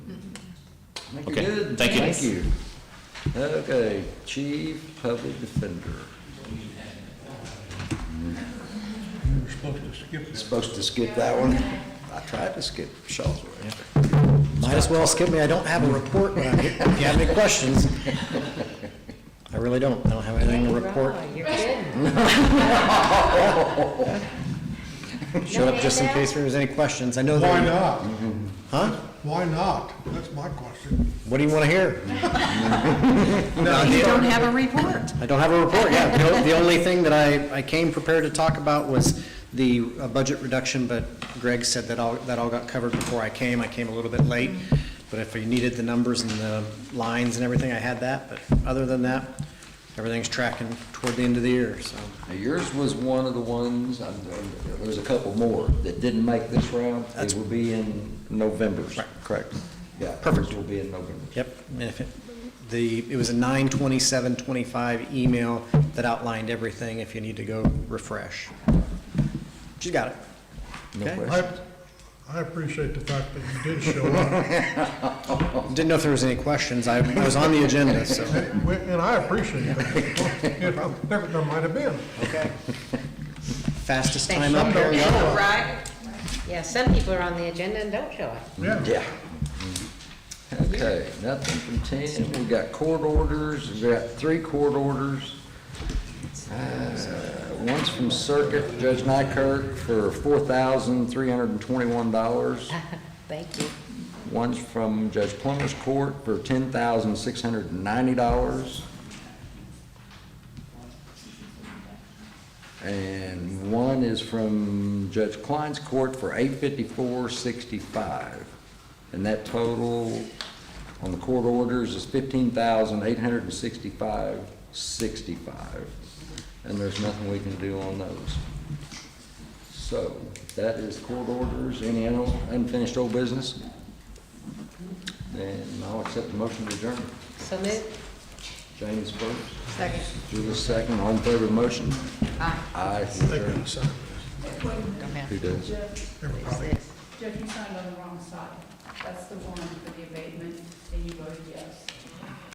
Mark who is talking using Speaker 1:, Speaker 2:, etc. Speaker 1: Thank you,
Speaker 2: Okay,
Speaker 1: good.
Speaker 2: thank you.
Speaker 1: Thank you. Okay, Chief Public Defender.
Speaker 3: We're supposed to skip this.
Speaker 1: Supposed to skip that one? I tried to skip Shaw's way.
Speaker 4: Might as well skip me, I don't have a report, but I- if you have any questions. I really don't, I don't have anything to report.
Speaker 5: Right, Oh, You're kidding.
Speaker 4: Showed up just in case there was any questions, I know that.
Speaker 3: Why not?
Speaker 4: Huh?
Speaker 3: Why not? That's my question.
Speaker 4: What do you want to hear?
Speaker 3: Now,
Speaker 4: you
Speaker 5: Don't have a report.
Speaker 4: I don't have a report, yeah. The- The only thing that I, I came prepared to talk about was the uh, budget reduction, but Greg said that all, that all got covered before I came. I came a little bit late, but if you needed the numbers and the lines and everything, I had that. But other than that, everything's tracking toward the end of the year, so.
Speaker 1: Now, yours was one of the ones, I'm- I'm- there's a couple more that didn't make this round. They
Speaker 4: That's-
Speaker 1: will be in November.
Speaker 4: Right,
Speaker 1: correct. Yeah, perfect.
Speaker 4: Perfect.
Speaker 1: will be in November.
Speaker 4: Yep, and if it, the, it was a nine twenty-seven twenty-five email that outlined everything if you need to go refresh. She's got it.
Speaker 1: No
Speaker 4: Okay.
Speaker 3: I,
Speaker 1: question.
Speaker 3: I appreciate the fact that you did show up,
Speaker 4: Didn't know if there was any questions. I I was on the agenda, so.
Speaker 3: and we- and I appreciate that. You know, There there might have been.
Speaker 4: Okay. Fastest
Speaker 5: Thank
Speaker 4: time up
Speaker 3: you.
Speaker 4: here.
Speaker 5: Right? Yeah, some people are on the agenda and don't show up.
Speaker 3: Yeah.
Speaker 1: Yeah. Okay, nothing from ten. We got court orders, we got three court orders. Uh, One's from Circuit Judge Nykirk for four thousand three hundred and twenty-one dollars.
Speaker 5: Thank you.
Speaker 1: One's from Judge Plummer's Court for ten thousand six hundred and ninety dollars. And one is from Judge Klein's Court for eight fifty-four sixty-five. And that total on the court orders is fifteen thousand eight hundred and sixty-five sixty-five. And there's nothing we can do on those. So, that is court orders, any un- unfinished old business? And I'll accept the motion to adjourn.
Speaker 5: So moved.
Speaker 1: James first,
Speaker 5: Second.
Speaker 1: Julie second, all in favor of the motion?
Speaker 5: Aye.
Speaker 1: Aye.
Speaker 3: They couldn't sign
Speaker 5: Don't
Speaker 1: Who
Speaker 5: have
Speaker 1: does?
Speaker 3: this. Everybody.
Speaker 5: this.
Speaker 6: Jeff, you signed on the wrong side. That's the one for the abatement, and you voted yes.